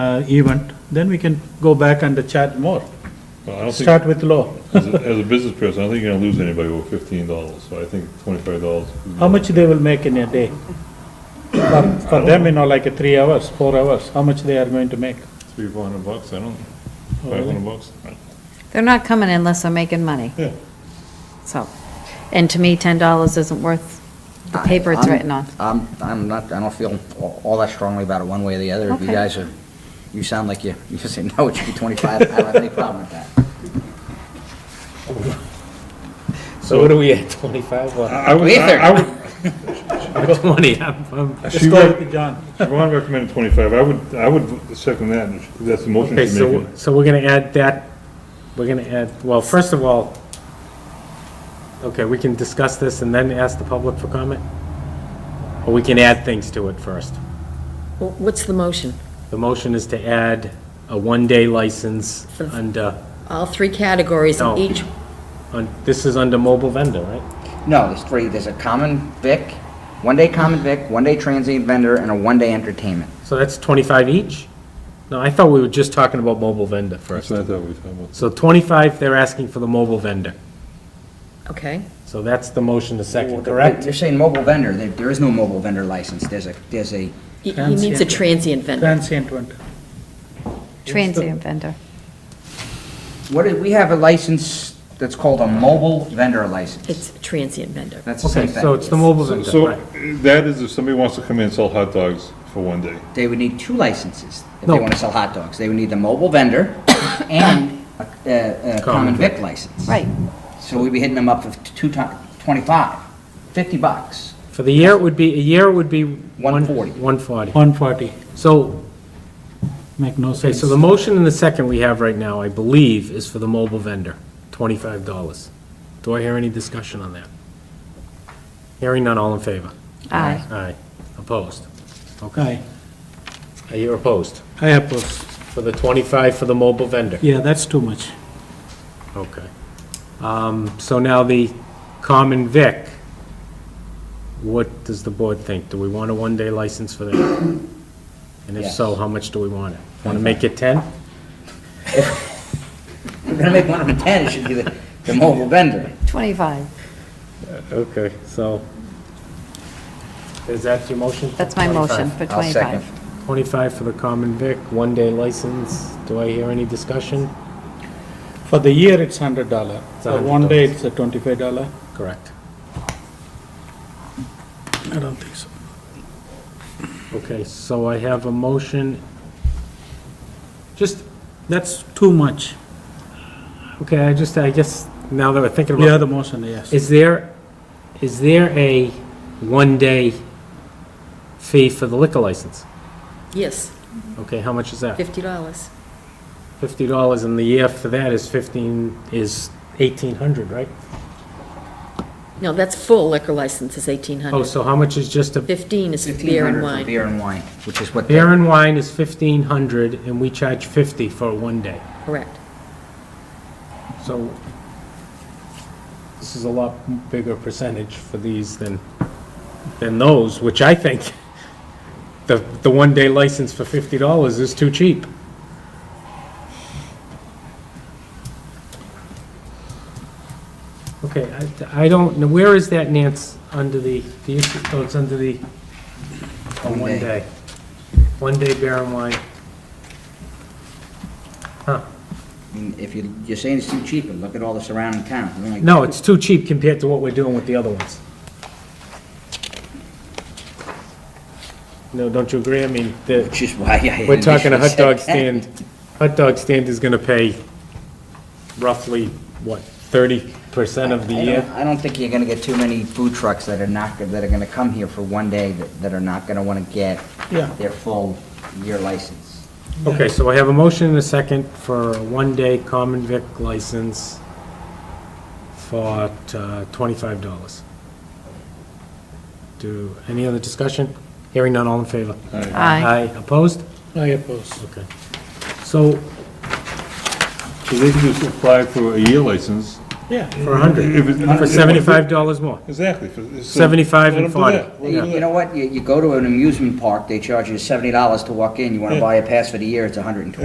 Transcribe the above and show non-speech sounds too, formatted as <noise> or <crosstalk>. uh, event, then we can go back and chat more. Well, I don't think, Start with low. as a, as a business person, I don't think you're gonna lose anybody over fifteen dollars, so I think twenty-five dollars. How much they will make in a day? For- For them, you know, like a three hours, four hours, how much they are going to make? Three, four hundred bucks, I don't, five really? hundred bucks? They're not coming unless they're making money, Yeah. so. And to me, $10 isn't worth the paper it's I'm- written on. I'm, I'm not, I don't feel all- all that strongly about it one way or the other. If you Okay. guys are, you sound like you, <laughs> you say, no, it should be 25, I don't have any problem with that. So what are we at, 25 I, or I would, I I would, 20? I'm- I'm- Let's She go would- with John. Siobhan recommended twenty-five, I would, I would second that, if that's the motion Okay, she's so, making. so we're gonna add that, we're gonna add, well, first of all, okay, we can discuss this and then ask the public for comment? Or we can add things to it first? Well, What's the motion? The motion is to add a one-day license under, All three categories No. and each, on- this is under mobile vendor, right? No, there's three, there's a common vic, one-day common vic, one-day transient vendor, and a one-day entertainment. So that's 25 each? No, I thought we were just talking about mobile vendor That's first. what I thought we were talking about. So 25, they're asking for the mobile vendor. okay. So that's the motion, the second, correct? They're saying mobile vendor, there, there is no mobile vendor license, there's a, there's a, He he needs a transient vendor. Transient one. Transient vendor. what, do- we have a license that's called a mobile vendor license. It's a transient vendor. That's the Okay, same thing. so it's the mobile vendor, So, right? that is if somebody wants to come in and sell hot dogs for one day. They would need two licenses if No. they want to sell hot dogs. They would need the mobile vendor <coughs> and a- a, a common vic license. Right. So we'd be hitting them up for two ti- 25, 50 bucks. For the year, it would be, a year would be... 140. 140. One forty, So, make no okay, sense. so the motion and the second we have right now, I believe, is for the mobile vendor, $25. Do I hear any discussion on that? Hearing none, all in favor? Aye. Aye. Opposed? Okay. Aye, Are you opposed? I oppose. For the 25 for the mobile vendor? Yeah, that's too much. Okay. Um, So now the common vic, what does the board think? Do we want a one-day license for that? And if so, Yes. how much do we want it? Want to make it 10? If we're going to make one of them 10, it should be the, the mobile vendor. 25, Okay, so, is that your motion? that's my motion 25. for I'll second. 25. 25 for the common vic, one-day license. Do I hear any discussion? For the year, it's hundred dollar. It's For one day, $100. it's a twenty-five dollar. Correct. I don't think so. Okay, so I have a motion. Just, That's too much. okay, I just, I guess, now that we're thinking about The other motion, yes. Is there, is there a one-day fee for the liquor license? Yes, Okay, how much is that? $50. Fifty dollars in the year for that is fifteen, is eighteen hundred, right? No, that's full liquor license is Oh, $1,800. so how much is just a, 15 is beer 1,500 and for wine. Beer and wine, which is what. the- beer and wine is fifteen hundred, and we charge fifty for one day. Correct. So this is a lot bigger percentage for these than, than those, which I think <laughs> the, the one-day license for fifty dollars is too cheap. Okay, I, I don't, know where is that, Nance, under the, the issue, oh, it's under the, oh, One one day. day. One day beer and wine. Huh. I mean, If you, you're saying it's too cheap, but look at all the surrounding towns. We're like- No, it's too cheap compared to what we're doing with the other ones. No, don't you agree? I mean, the, Which is why <laughs> I. we're talking a hot dog initially said stand, hot dog stand is gonna pay roughly, what, thirty percent of the 10. I don't, year? I don't think you're going to get too many food trucks that are not, that are going to come here for one day that, that are not going to want to get Yeah. their full year license. Okay, so I have a motion and a second for a one-day common vic license for uh, twenty-five dollars. Do, any other discussion? Hearing none, all in favor? Aye. Aye, opposed? I oppose. Okay. So, So they can just apply for a year license Yeah. for a hundred, If it- for seventy-five dollars more. Exactly. for- so 75 and let 'em do 40. that. Let 'em You do you that. know what, you, you go to an amusement park, they charge you seventy dollars to walk in, you wanna Yeah. buy a pass for the year, it's a hundred and twenty.